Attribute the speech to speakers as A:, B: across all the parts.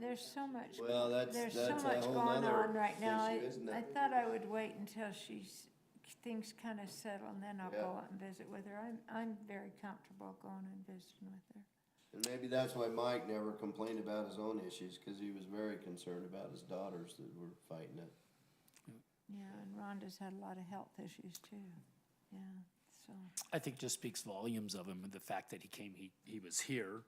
A: there's so much,
B: Well, that's,
A: there's
B: that's
A: so
B: a
A: much
B: whole
A: going
B: nother
A: on right now. I,
B: issue, isn't
A: I
B: it?
A: thought I would wait until she's, things kind of settle and then I'll
B: Yeah.
A: go out and visit with her. I'm, I'm very comfortable going and visiting with her.
B: And maybe that's why Mike never complained about his own issues, cause he was very concerned about his daughters that were fighting it.
A: Yeah, and Rhonda's had a lot of health issues too. Yeah, so,
C: I think just speaks volumes of him, the fact that he came, he, he was here,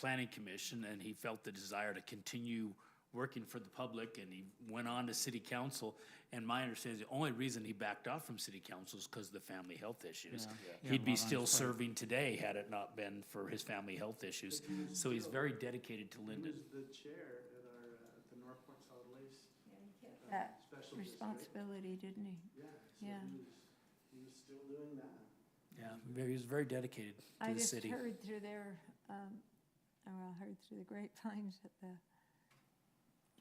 C: planning commission, and he felt the desire to continue working for the public, and he went on to city council. And my understanding, is the only reason he backed off from city council is because of the family health issues. He'd be still serving today had it not been for his family health issues. So he's very dedicated to
D: He
C: Linden.
D: was the chair at our, uh, at the North Point Solid Waste. uh,
A: that
D: Special District.
A: responsibility, didn't he?
D: Yeah, so
A: Yeah.
D: he was, he was still doing that.
C: Yeah, very- he was very dedicated
A: I
C: to the
A: just
C: city.
A: heard through their, um, oh, well, heard through the grapevines that the,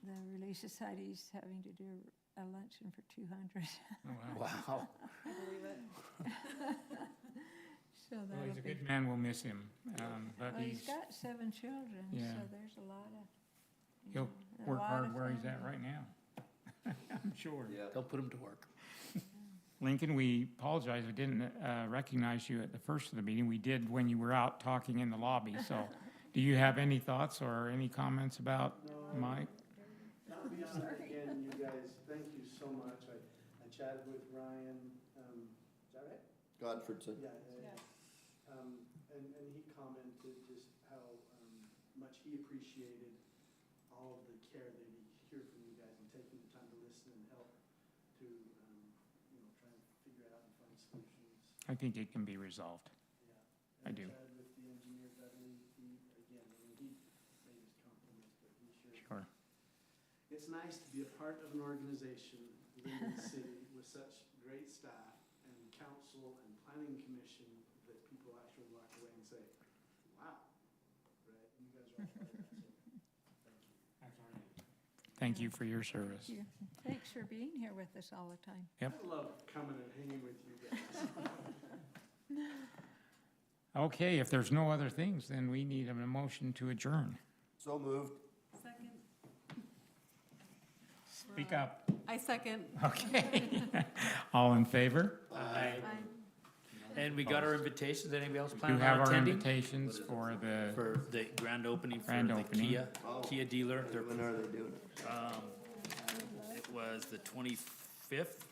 A: the Relief Society's having to do a luncheon for two hundred,
C: Wow.
A: so
E: Well, he's a
A: that'll be.
E: good man, we'll miss him, um, but
A: Well, he's
E: he's,
A: got seven children,
E: Yeah.
A: so there's a lot of. you
E: He'll
A: know, a
E: work
A: lot of
E: hard where he's at
A: family.
E: right now. I'm sure.
B: Yeah.
C: They'll put him to work.
E: Lincoln, we apologize, we didn't, uh, recognize you at the first of the meeting, we did when you were out talking in the lobby, so. Do you have any thoughts or any comments about Mike?
D: Not beyond, again, you guys, thank you so much. I, I chatted with Ryan, um, is that right?
B: Godfredson.
D: Yeah. yeah, yeah. Um, and, and he commented just how, um, much he appreciated all of the care that he heard from you guys and taking the time to listen and help to, um, you know, try and figure out and find solutions.
E: I think it can be resolved.
D: Yeah,
E: I
D: and
E: do.
D: chatted With the engineer, Dudley, he, again, I mean, he made his compliments, but he sure.
E: Sure.
D: It's nice to be a part of an organization, Linden City, with such great staff and council and planning commission that people actually walk away and say, wow, right, you guys are all part of that, so, thank
E: Thank you
D: you.
E: for your service.
A: Thank you. Thanks for being here with us all the time.
E: Yep.
D: I love coming and hanging with you guys.
E: Okay, if there's no other things, then we need a motion to adjourn.
B: So moved.
F: Second.
E: Speak up.
F: I second.
E: Okay. All in favor?
C: And we got our invitations. Anybody else
E: Do
C: planning
E: have
C: on
E: our
C: attending?
E: invitations for the.
C: for the grand opening for
E: Grand
C: the
E: opening.
C: Kia,
B: Oh.
C: Kia dealer. Their-
B: When are they doing it?
C: It was the twenty-fifth